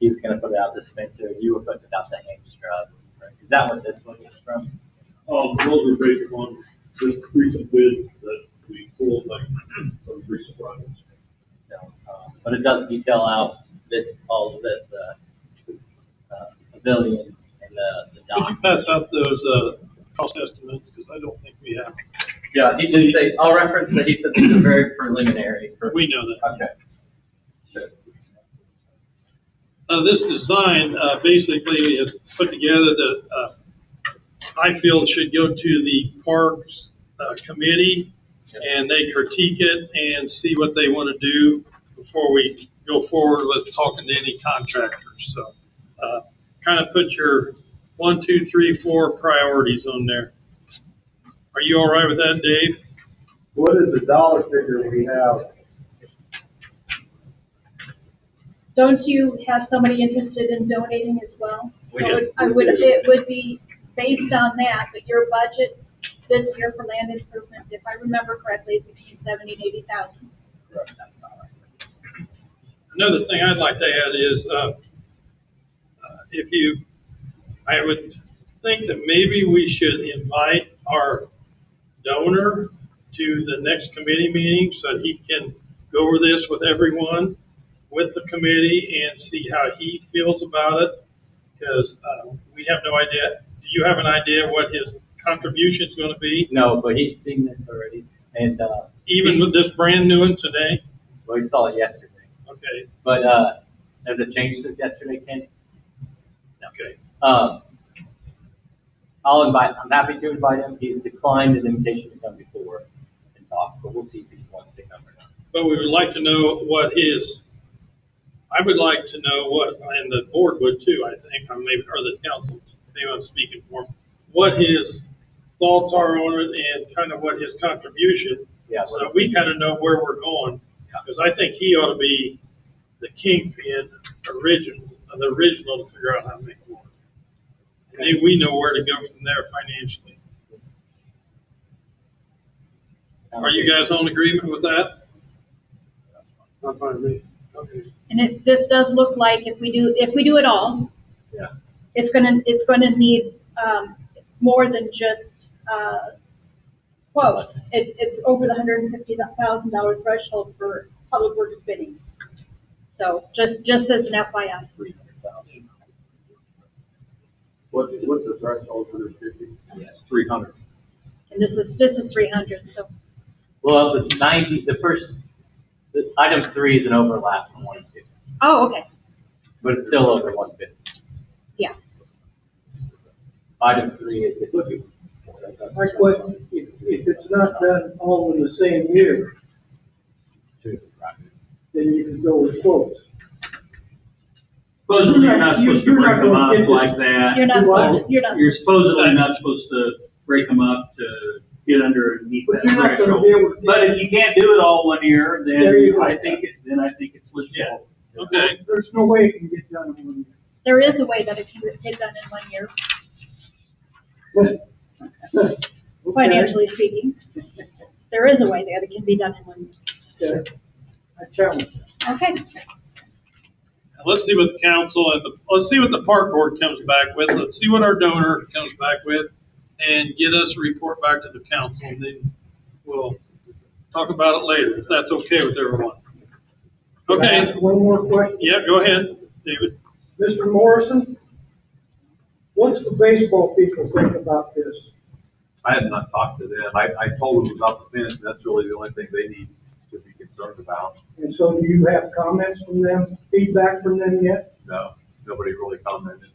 he was gonna put it out the Spencer, you were putting it out the Hamstra. Is that what this one is from? Um, those were based on just recent bids that we pulled, like, from recent projects. So, um, but it does detail out this, all of the, the, uh, pavilion and the, the Could you dock. pass out those, uh, cost estimates, because I don't think we have, Yeah, he did say, I'll reference that he said these are very preliminary for. we know that. Okay. Sure. Uh, this design, uh, basically is put together that, uh, I feel should go to the Parks, uh, Committee, and they critique it and see what they want to do before we go forward with talking to any contractors, so, uh, kind of put your one, two, three, four priorities on there. Are you all right with that, Dave? What is the dollar figure we have? Don't you have somebody interested in donating as well? We So do. it- I would, it would be based on that, but your budget this year for land improvements, if I remember correctly, is between seventy and eighty thousand. That's not right. Another thing I'd like to add is, uh, uh, if you, I would think that maybe we should invite our donor to the next committee meeting so that he can go over this with everyone, with the committee, and see how he feels about it. Because we have no idea, do you have an idea what his contribution's going to be, No, but he's seen this already, and, uh, even with this brand new one today? well, he saw it yesterday. Okay, But, uh, has it changed since yesterday, Ken? No. okay. Um, I'll invite, I'm happy to invite him. He's declined an invitation to come before and talk, but we'll see if he wants to come or not. But we would like to know what his, I would like to know what, and the board would too, I think, or maybe, or the council, if anyone's speaking for him, what his thoughts are on it and kind of what his contribution. Yeah, So we kind of know where we're going, because I think he ought to be the kingpin original, the original to figure out how to make it work. And then we know where to go from there financially. Are you guys all in agreement with that? Not finally, okay. And it, this does look like if we do, if we do it all, Yeah. it's gonna, it's gonna need, um, more than just, uh, quotes. It's, it's over the hundred and fifty thousand dollar threshold for public works bidding. So just, just as an FYI. Three hundred thousand. What's, what's the threshold for the fifty? Yes. Three hundred. And this is, this is three hundred, so Well, the ninety, the first, the item three is an overlap from one and two, Oh, okay, but it's still over one fifty. yeah. Item three is. My question, if, if it's not done all in the same year, then you can go with quotes. Supposedly, you're not You- supposed to you're break not them gonna up get like this- that. You're not supposed, you're not, You're supposedly not supposed to break them up to get underneath But you're that not gonna threshold. be able to. But if you can't do it all one year, There you then go. I think it's, then I think it's legitimate. Okay. There's no way it can get done in one there is a way that it can get done in one year, year. Okay. financially speaking. There is a way that it can be done in one year. Okay. I challenge you. Okay, Let's see what the council and the, let's see what the park board comes back with. Let's see what our donor comes back with and get us a report back to the council and then we'll talk about it later, if that's okay with everyone. Can I Okay, ask One more question. yeah, go ahead, David. Mr. Morrison, what's the baseball people think about this? I have not talked to them. I, I told them about the fence, and that's really the only thing they need to be concerned about. And so do you have comments from them, feedback from them yet? No, nobody really commented.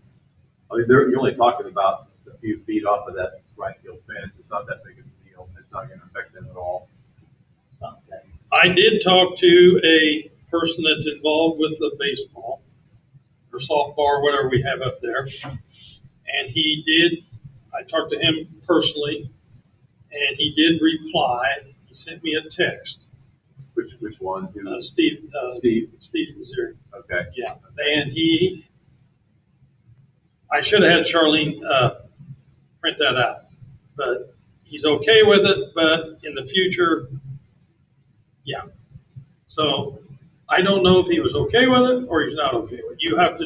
I mean, they're, you're only talking about a few feet off of that right field fence. It's not that big of a deal. It's not gonna affect them at all. I did talk to a person that's involved with the baseball or softball, or whatever we have up there. And he did, I talked to him personally and he did reply. He sent me a text. Which, which one? Who- Uh, Steve, uh, Steve. Steve was there. Okay. Yeah, and he, I should have had Charlene, uh, print that out, but he's okay with it, but in the future, yeah. So I don't know if he was okay with it or he's not okay with it. You have to